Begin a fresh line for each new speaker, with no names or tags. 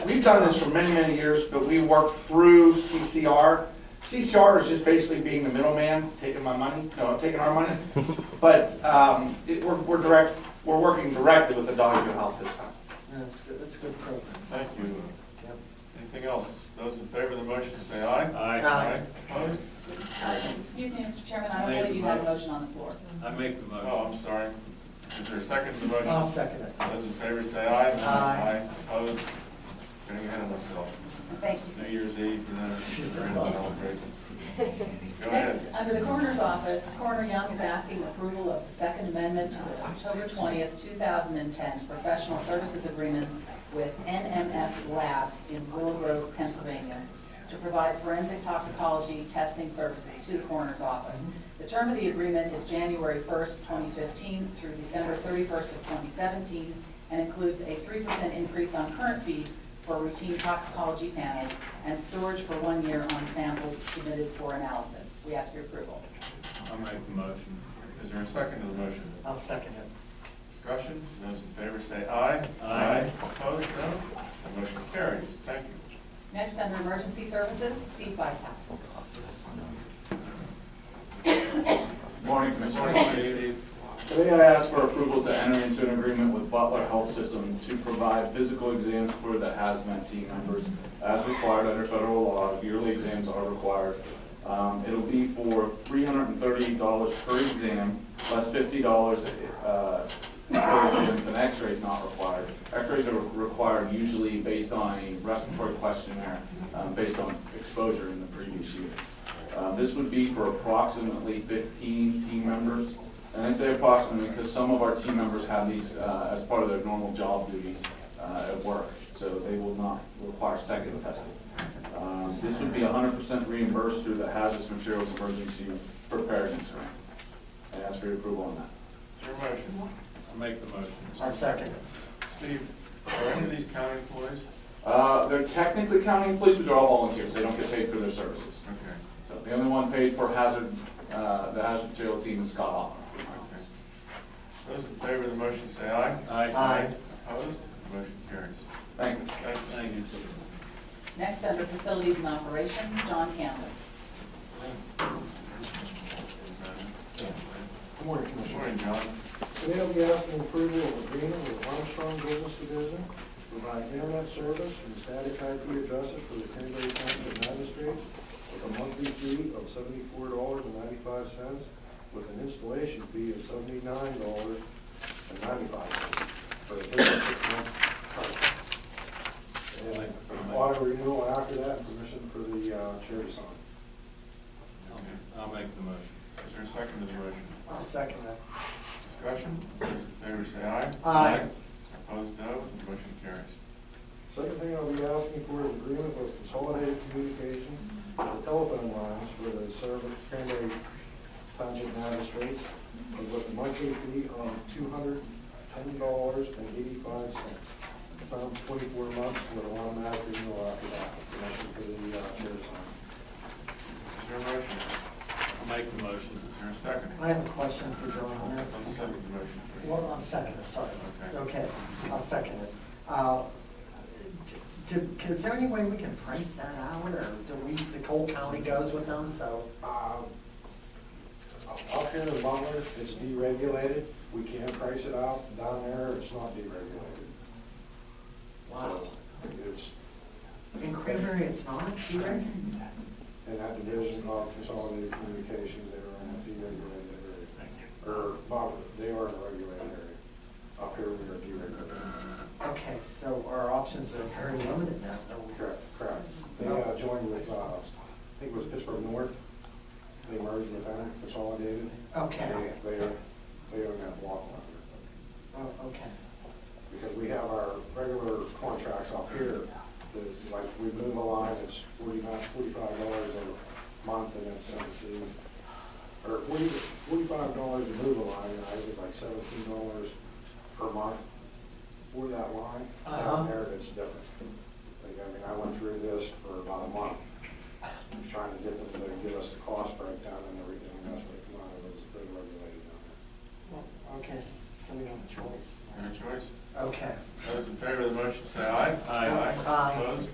we've done this for many, many years, but we work through CCR. CCR is just basically being the middleman, taking my money, no, taking our money. But um, it- we're we're direct, we're working directly with the Dogville Health this time.
That's, good. that's a good program.
Thank you.
Yep.
Anything else? Those in favor of the motion say aye.
Aye.
Opposed?
Excuse me, Mr. Chairman, I don't
Thank
believe
you,
you had a
Madam.
motion on the floor.
I make the motion.
Oh, I'm sorry. Is there a second to the
I'll
motion?
second it.
Those in favor say aye.
Aye.
Opposed? Getting ahead of myself.
Thank you.
New Year's Eve, you know, random celebrations. Go
Next,
ahead.
under the coroner's office, Coroner Young is asking approval of the Second Amendment to the October 20th, 2010 Professional Services Agreement with NMS Labs in Willow Grove, Pennsylvania, to provide forensic toxicology testing services to the coroner's office. The term of the agreement is January 1st, 2015 through December 31st of 2017, and includes a 3% increase on current fees for routine toxicology panels and storage for one year on samples submitted for analysis. We ask your approval.
Oh.
I make the motion.
Is there a second to the motion?
I'll second it.
Discussion? Those in favor say aye.
Aye.
Opposed? No? The Motion carries. Thank you.
Next, under emergency services, Steve Bicehouse.
Morning,
Good
Commissioner.
morning, Steve.
Today I ask for approval to enter into an agreement with Butler Health System to provide physical exams for the hazmat team members as required under federal law. Yearly exams are required. Um, It'll be for $330 per exam, plus $50 uh, per exam if an x-ray is not required. X-rays are required usually based on a respiratory questionnaire, um, based on exposure in the previous year. Uh, This would be for approximately 15 team members. And I say approximately because some of our team members have these uh, as part of their normal job duties uh, at work, so they will not require second testing. Um, This would be 100% reimbursed through the Hazardous Materials Emergency Preparedness Grant. I ask for your approval on that.
Is there a motion?
I make the motion.
I'll second it.
Steve, are any of these county employees?
Uh, They're technically county police, but they're all volunteers. They don't get paid for their services.
Okay.
So the only one paid for hazard, uh, the hazard material team is Scott Hoffman.
Okay. Those in favor of the motion say aye.
Aye.
Aye.
Opposed? Motion carries.
Thank you.
Thank you.
Thank you, sir.
Next, under facilities and operations, John Campbell.
Good morning,
Good
Commissioner.
morning, John.
Today I'll be asking approval of agreement with Armstrong Business Division to provide internet service and static IP addresses for the Cranberry County magistrates with a monthly fee of seventy-four dollars and ninety-five cents with an installation fee of seventy-nine dollars and ninety-five cents for a thirty-six-month contract. And auto renewal after that, and permission for the uh, chair to sign.
I'll make the motion.
Is there a second to the motion?
I'll second that.
Discussion? Those in favor say aye.
Aye.
Opposed, no. Motion carries.
Second thing I'll be asking for is agreement with Consolidated Communications for the telephone lines for the service primary township magistrates with a monthly fee of two hundred ten dollars and eighty-five cents. Term twenty-four months with an automatic renewal after that. Permission for the uh, chair to sign.
Is there a motion?
I make the motion.
Is there a second?
I have a question for John on that.
I'll second the motion. please.
Well, I'll second it, sorry.
Okay.
Okay, I'll second it. Uh, d- d- Is there any way we can price that out, or do we, the whole county goes with them, so?
Um, Up here in Butler, it's deregulated. We can't price it out. Down there, it's not deregulated.
Wow.
It's,
In Cranberry, it's not, either?
And that division of consolidated communications, they are in a deregulated area. Or, well, they are in a regulated area. Up here, we are deregulated.
Okay, so our options are very limited now, though.
Correct, correct. They uh, joined with, uh, I think it was Pittsburgh North. They merged with them, consolidated.
Okay.
They, they are, they own that block up here.
Oh, okay.
Because we have our regular contracts up here. that, Like, we move a line, it's forty-nine, forty-five dollars a month, and it's seventeen, or forty, forty-five dollars to move a line, and I think it's like seventeen dollars per month for that line.
Uh-huh.
Down there, it's different. Like, I mean, I went through this for about a month, trying to get them to give us the cost breakdown and everything, and that's what it come out of, it was pretty regulated down there.
Well, Okay, so we don't have a choice.
Any choice?
Okay.
Those in favor of the motion say aye.
Aye.
Aye.
Opposed?